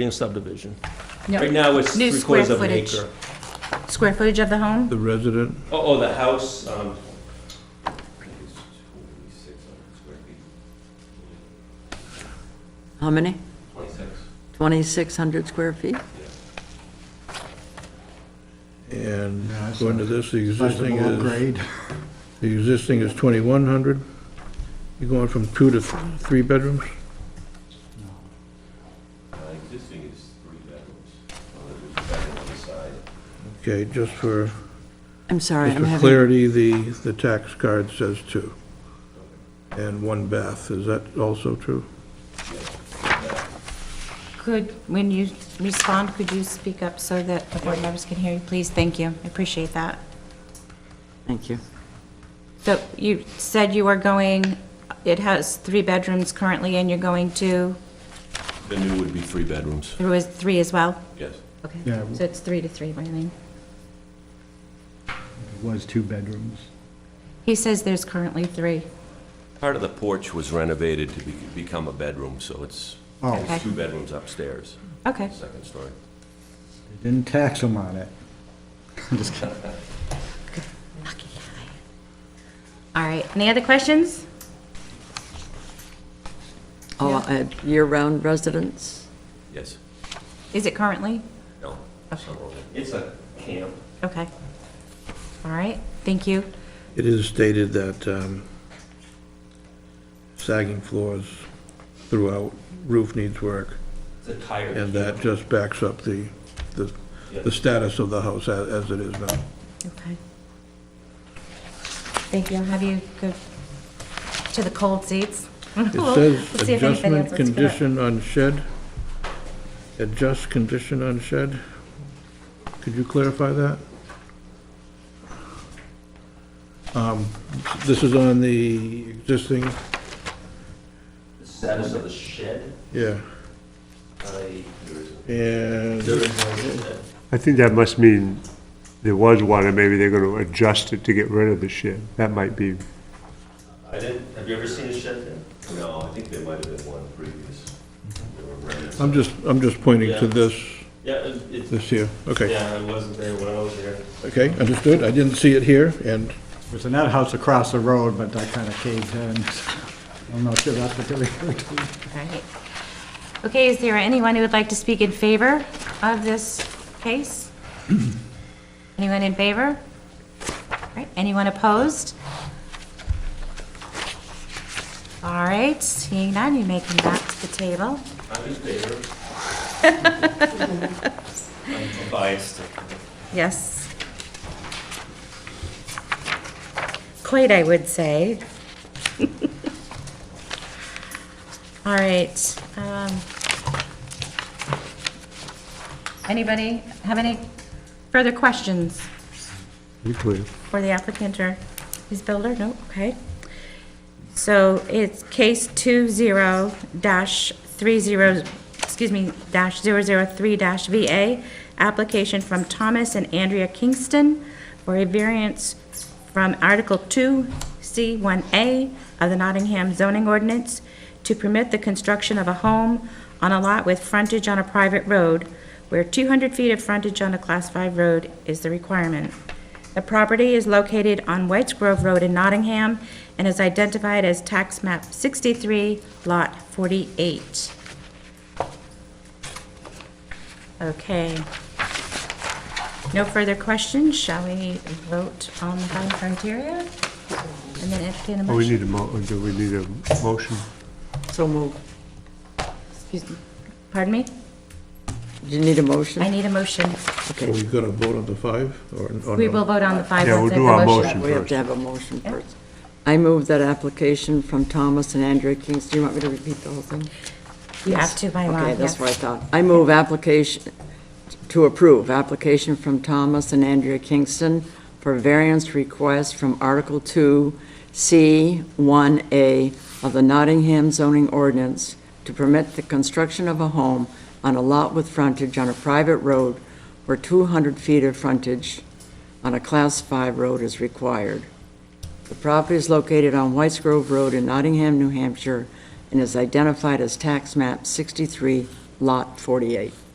in subdivision. Right No, now, it's New three quarters square of an footage. acre. square footage of the home? The resident, Oh, oh, the house, um, How many? 2,600 square feet? and Yeah, I saw according to this, the existing Below is, grade. the existing is 2,100. You're going from two to th- three bedrooms? Uh, Existing is three bedrooms, Uh, there's a bedroom on the side. Okay, just for, I'm sorry, just I'm for having, clarity, the, the tax card says two. And one bath, is that also true? Could, when you respond, could you speak up so that the board members can hear you, please? Thank you, I appreciate that. thank you. So you said you were going, it has three bedrooms currently, and you're going to, The new would be three bedrooms, there was three as well? yes. Okay, Yeah. so it's three to three, Marlene. It was two bedrooms. He says there's currently three. Part of the porch was renovated to be- become a bedroom, so it's Oh, Okay. two bedrooms upstairs, Okay, second story. they didn't tax them on it. Just kidding. all right. Any other questions? Oh, uh, year-round residents? Yes, Is it currently? no, summer only. it's a camp. Okay. All right, thank you. It is stated that um, sagging floors throughout, roof needs work, It's a tired and camp. that just backs up the, the the status of the house a- as it is now. Okay. Thank you. I'll have you go to the cold seats. We'll- It we'll says see if anybody else adjustment wants to come up. condition on shed. Adjust condition on shed. Could you clarify that? Um, This is on the existing, The status of the shed, yeah, I, there is, Uh, there and, is, no- I think that must mean there was one, and maybe they're gonna adjust it to get rid of the shed. That might be, I didn't, have you ever seen a shed there? No, I think there might have been one previous. There were remnants. I'm just, I'm just pointing to this, yeah, it- it, this here. Okay, yeah, I wasn't there when I was there. okay, understood. I didn't see it here, and, It was an outhouse across the road, but I kind of caved in. I'm not sure that's what they referred to. All right. Okay, is there anyone who would like to speak in favor of this case? Anyone in favor? All right, anyone opposed? All right, seeing none, you may come back to the table. I'm in favor. I'm biased. Yes. Quite, I would say. All right. um, Anybody have any further questions be clear. for the applicant or his builder? No, okay. So it's case 20-30, dash three zero excuse me, dash 003-VA, dash VA, application from Thomas and Andrea Kingston for a variance from Article 2, C1A of the Nottingham zoning ordinance to permit the construction of a home on a lot with frontage on a private road where 200 feet of frontage on a Class 5 road is the requirement. The property is located on Whites Grove Road in Nottingham and is identified as tax map 63, lot 48. Okay. No further questions, shall we vote on the bottom criteria? And then entertain a Oh, we motion? need a mo, do we need a motion? So moved. Excuse me. Pardon me? Do you need a motion? I need a motion. are Okay, we gonna vote on the five, or or We no? will vote on the five Yeah, we'll once I have do our the motion. motion. we have to have a motion first. I move that application from Thomas and Andrea Kings, do you want me to repeat the whole thing? You have to by law, Okay, yes. that's what I thought. I move application, to approve, application from Thomas and Andrea Kingston for variance request from Article 2, C1A of the Nottingham zoning ordinance to permit the construction of a home on a lot with frontage on a private road where 200 feet of frontage on a Class 5 road is required. The property is located on Whites Grove Road in Nottingham, New Hampshire, and is identified as tax map 63, Lot 48.